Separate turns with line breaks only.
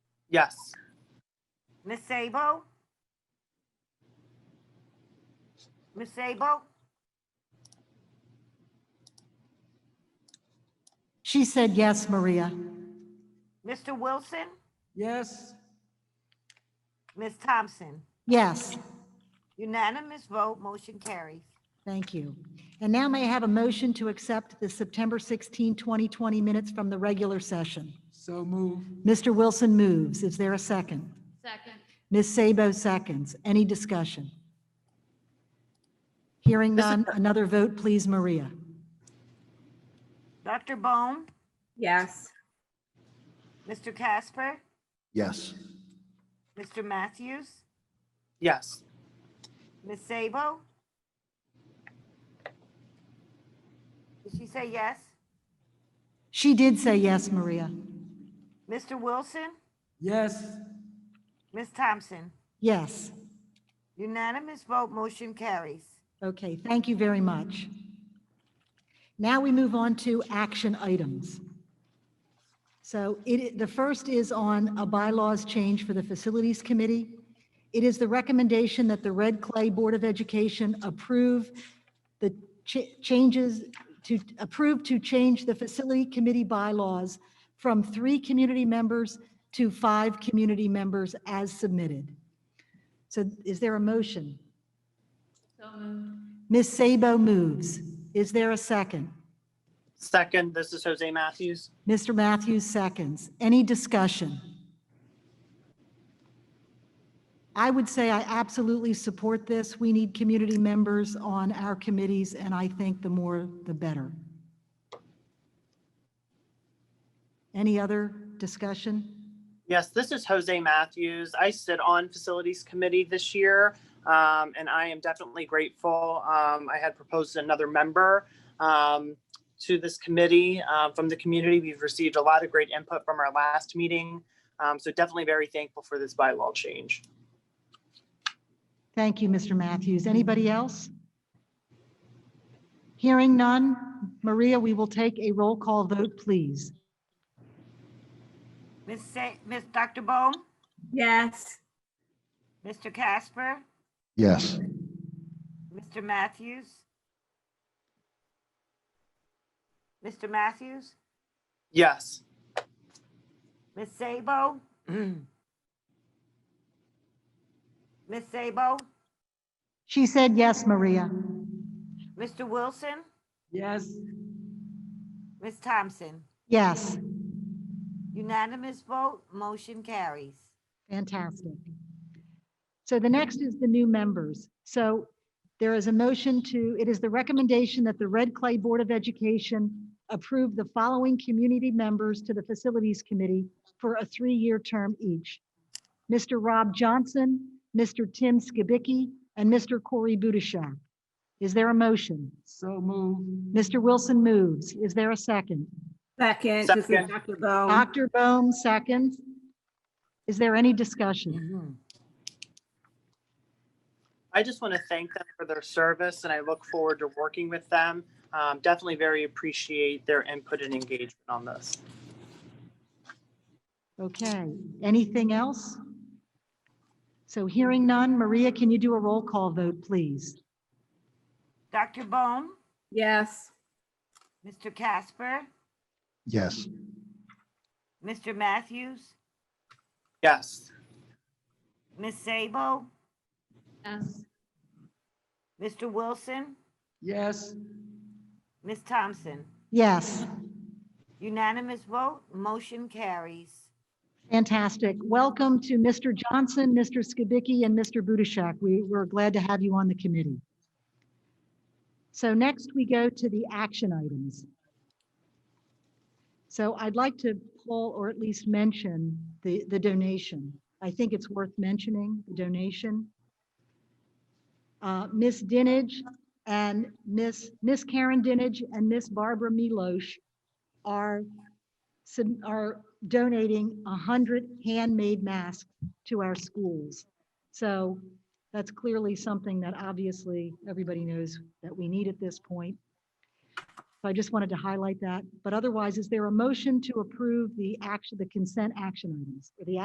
Yes.
Ms. Sabo? Ms. Sabo?
She said yes, Maria.
Mr. Wilson?
Yes.
Ms. Thompson?
Yes,
Unanimous vote, motion carries.
thank you. And now may I have a motion to accept the September 16, 2020 minutes from the regular session?
So move.
Mr. Wilson moves. Is there a second?
Second.
Ms. Sabo seconds. Any discussion? Hearing none, another vote, please, Maria.
Dr. Bone?
Yes.
Mr. Casper?
Yes.
Mr. Matthews?
Yes.
Ms. Sabo? Did she say yes?
She did say yes, Maria.
Mr. Wilson?
Yes.
Ms. Thompson?
Yes.
Unanimous vote, motion carries.
Okay, thank you very much. Now we move on to action items. So it, the first is on a bylaws change for the Facilities Committee. It is the recommendation that the Red Clay Board of Education approve the ch- changes to, approve to change the Facility Committee bylaws from three community members to five community members as submitted. So is there a motion?
So moved.
Ms. Sabo moves. Is there a second?
Second, this is Jose Matthews.
Mr. Matthews seconds. Any discussion? I would say I absolutely support this. We need community members on our committees, and I think the more, the better. Any other discussion?
Yes, this is Jose Matthews. I sit on Facilities Committee this year, um, and I am definitely grateful. Um, I had proposed another member um, to this committee uh, from the community. We've received a lot of great input from our last meeting, um, so definitely very thankful for this bylaw change.
Thank you, Mr. Matthews. Anybody else? Hearing none. Maria, we will take a roll call vote, please.
Ms. Sa- Ms. Dr. Bone?
Yes.
Mr. Casper?
Yes.
Mr. Matthews? Mr. Matthews?
Yes.
Ms. Sabo? Ms. Sabo?
She said yes, Maria.
Mr. Wilson?
Yes.
Ms. Thompson?
Yes,
Unanimous vote, motion carries.
fantastic. So the next is the new members. So there is a motion to, it is the recommendation that the Red Clay Board of Education approve the following community members to the Facilities Committee for a three-year term each. Mr. Rob Johnson, Mr. Tim Skibicki, and Mr. Corey Budushak. Is there a motion?
So move.
Mr. Wilson moves. Is there a second?
Second, this is
Second.
Dr. Bone.
Dr. Bohm seconds. Is there any discussion?
I just want to thank them for their service, and I look forward to working with them. Um, definitely very appreciate their input and engagement on this.
Okay, anything else? So hearing none, Maria, can you do a roll call vote, please?
Dr. Bone?
Yes.
Mr. Casper?
Yes.
Mr. Matthews?
Yes.
Ms. Sabo?
Yes.
Mr. Wilson?
Yes.
Ms. Thompson?
Yes,
Unanimous vote, motion carries.
fantastic. Welcome to Mr. Johnson, Mr. Skibicki, and Mr. Budishak. We, we're glad to have you on the committee. So next, we go to the action items. So I'd like to pull or at least mention the, the donation. I think it's worth mentioning, the donation. Uh, Ms. Dinage and Miss Miss Karen Dinage and Miss Barbara Milosh are, sub- are donating 100 handmade masks to our schools. So that's clearly something that obviously everybody knows that we need at this point. So I just wanted to highlight that. But otherwise, is there a motion to approve the action, the consent action items, or the